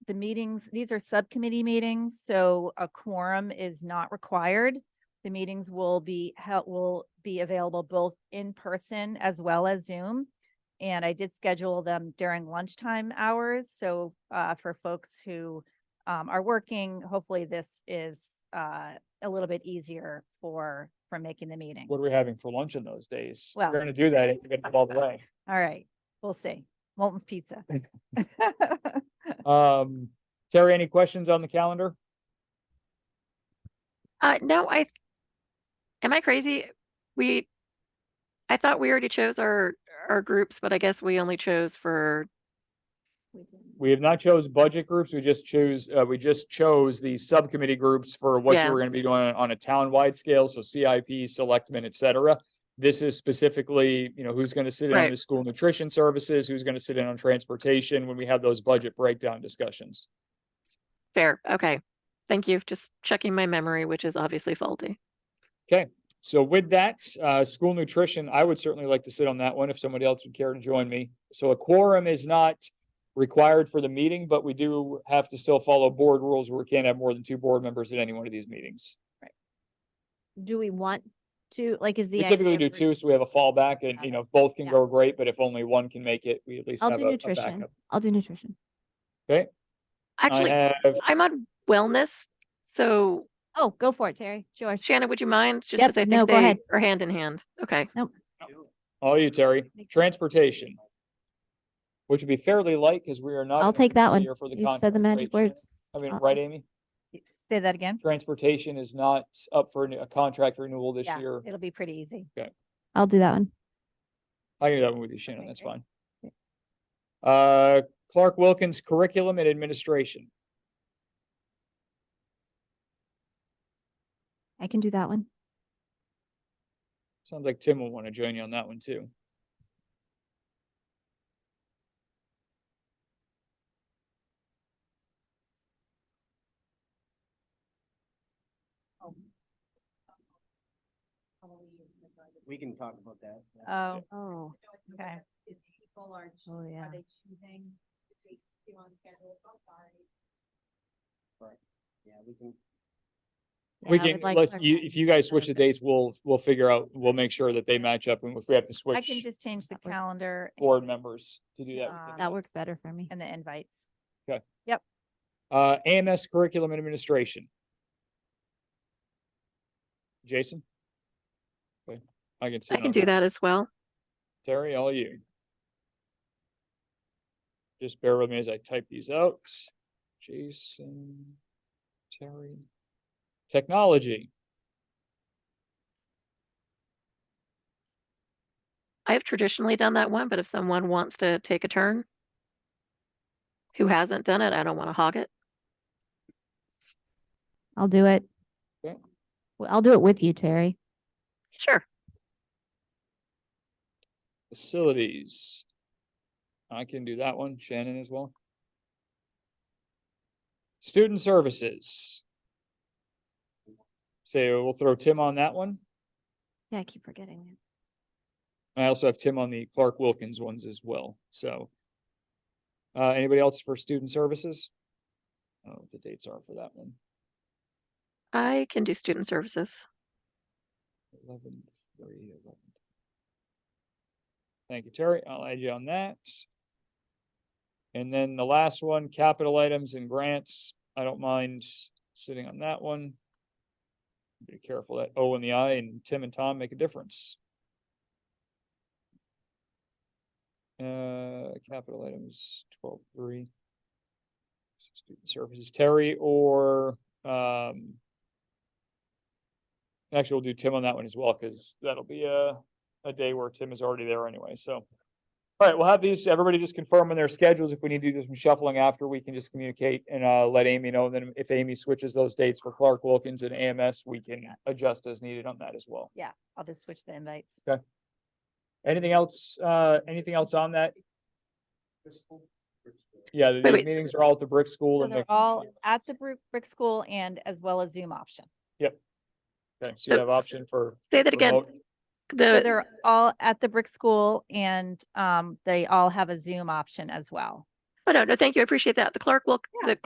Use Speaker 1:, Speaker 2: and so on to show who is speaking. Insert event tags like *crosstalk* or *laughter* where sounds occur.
Speaker 1: the meetings, these are subcommittee meetings, so a quorum is not required. The meetings will be, held will be available both in person as well as Zoom. And I did schedule them during lunchtime hours, so uh for folks who um are working, hopefully this is uh a little bit easier for for making the meeting.
Speaker 2: What are we having for lunch on those days?
Speaker 1: Well-
Speaker 2: We're gonna do that if you're gonna all the way.
Speaker 1: All right, we'll see. Molten's Pizza. *laughs*
Speaker 2: Um, Terry, any questions on the calendar?
Speaker 3: Uh, no, I, th- am I crazy? We, I thought we already chose our, our groups, but I guess we only chose for,
Speaker 2: We have not chose budget groups. We just choose, uh, we just chose the subcommittee groups for what
Speaker 3: Yeah.
Speaker 2: you were gonna be doing on a town-wide scale, so CIP, selectmen, et cetera. This is specifically, you know, who's gonna sit in on
Speaker 3: Right.
Speaker 2: the school nutrition services, who's gonna sit in on transportation when we have those budget breakdown discussions.
Speaker 3: fair, okay. Thank you, just checking my memory, which is obviously faulty.
Speaker 2: So with that, uh, school nutrition, I would certainly like to sit on that one if somebody else would care to join me. So a quorum is not required for the meeting, but we do have to still follow board rules where we can't have more than two board members at any one of these meetings.
Speaker 4: do we want to, like, is the.
Speaker 2: We typically
Speaker 4: idea
Speaker 2: do
Speaker 4: for-
Speaker 2: two, so we have a fallback and, you know, both can
Speaker 4: Yeah.
Speaker 2: go great, but if only one can make it, we at least
Speaker 4: I'll
Speaker 2: have a
Speaker 4: do
Speaker 2: a
Speaker 4: nutrition.
Speaker 2: backup.
Speaker 4: I'll do nutrition.
Speaker 2: I uh,
Speaker 3: Actually,
Speaker 2: have,
Speaker 3: I'm on wellness, so
Speaker 4: Oh, go for it, Terry. It's yours.
Speaker 3: Shannon, would you mind? Just
Speaker 4: Yep,
Speaker 3: because I
Speaker 4: no,
Speaker 3: think
Speaker 4: go
Speaker 3: they
Speaker 4: ahead.
Speaker 3: are hand in hand, okay.
Speaker 2: all you, Terry,
Speaker 4: Makes sense.
Speaker 2: transportation. Which would be fairly light because we are not.
Speaker 4: I'll
Speaker 2: in a
Speaker 4: take that one.
Speaker 2: year for the
Speaker 4: You said the
Speaker 2: contract,
Speaker 4: magic
Speaker 2: right, Shannon?
Speaker 4: words.
Speaker 2: I mean,
Speaker 4: Uh-uh.
Speaker 2: right, Amy?
Speaker 1: Say that again?
Speaker 2: transportation is not up for a contract renewal this
Speaker 1: Yeah,
Speaker 2: year.
Speaker 1: It'll be pretty easy.
Speaker 4: I'll do that one.
Speaker 2: I can do that one with you, Shannon.
Speaker 1: Okay,
Speaker 2: That's
Speaker 1: great.
Speaker 2: fine. Uh, Clark Wilkins Curriculum and Administration.
Speaker 4: I can do that one.
Speaker 2: Sounds like Tim will want to join you on that one too.
Speaker 5: We can talk about that.
Speaker 1: Oh,
Speaker 4: Oh,
Speaker 1: okay.
Speaker 6: People are, ch-
Speaker 4: oh, yeah.
Speaker 6: are they choosing the dates to on schedule? So sorry.
Speaker 5: Yeah, we can.
Speaker 2: We
Speaker 4: Yeah, I
Speaker 2: can,
Speaker 4: would like
Speaker 2: let's,
Speaker 4: Clark
Speaker 2: you,
Speaker 4: Wilkins
Speaker 2: if you guys switch the dates,
Speaker 4: Curriculum.
Speaker 2: we'll, we'll figure out, we'll make sure that they match up and if we have to
Speaker 1: I can
Speaker 2: switch
Speaker 1: just change the
Speaker 4: That works.
Speaker 1: calendar and-
Speaker 2: board members to do that.
Speaker 1: Um,
Speaker 4: That works better for me.
Speaker 1: and the invites.
Speaker 2: Uh, AMS Curriculum and Administration. Jason? Okay, I can. sit
Speaker 3: I can
Speaker 2: on
Speaker 3: do that as well.
Speaker 2: Terry, all you. Just bear with me as I type these out. Jason, Terry. Technology,
Speaker 3: I've traditionally done that one, but if someone wants to take a turn who hasn't done it, I don't want to hog it.
Speaker 4: I'll do it.
Speaker 2: Okay.
Speaker 4: Well, I'll do it with you, Terry.
Speaker 3: Sure,
Speaker 2: facilities. I can do that one, Shannon as well. Student services. So we'll throw Tim on that one.
Speaker 4: Yeah, I keep forgetting. it.
Speaker 2: I also have Tim on the Clark Wilkins ones as well, so. Uh, anybody else for student services? I don't know what the dates are for that one.
Speaker 3: I can do student services.
Speaker 2: Eleven, three, eleven. Thank you, Terry. I'll add you on that. And then the last one, capital items and grants. I don't mind sitting on that one. Be careful that O in the I and Tim and Tom make a difference. Uh, capital items, twelve, three. Student services, Terry or, um, Actually, we'll do Tim on that one as well, because that'll be a, a day where Tim is already there anyway, so. All right, we'll have these, everybody just confirm on their schedules. If we need to do some shuffling after, we can just communicate and, uh, let Amy know. And then if Amy switches those dates for Clark Wilkins and AMS, we can adjust as needed on that as well.
Speaker 1: I'll just switch the invites.
Speaker 2: Anything else, uh, anything else on that? Yeah, these
Speaker 3: Wait, wait, s-
Speaker 2: meetings are all at the brick school
Speaker 1: So
Speaker 2: and
Speaker 1: they're
Speaker 2: the.
Speaker 1: all at the Brick, Brick School and as well as Zoom option.
Speaker 2: Okay, so you have
Speaker 3: so-
Speaker 2: option for.
Speaker 3: Say that again.
Speaker 2: remote.
Speaker 1: So
Speaker 3: The,
Speaker 1: they're all at the Brick School and um, they all have a Zoom option as well.
Speaker 3: oh, no, no, thank you. I appreciate that. The Clark Wilk,
Speaker 1: Yeah.
Speaker 3: the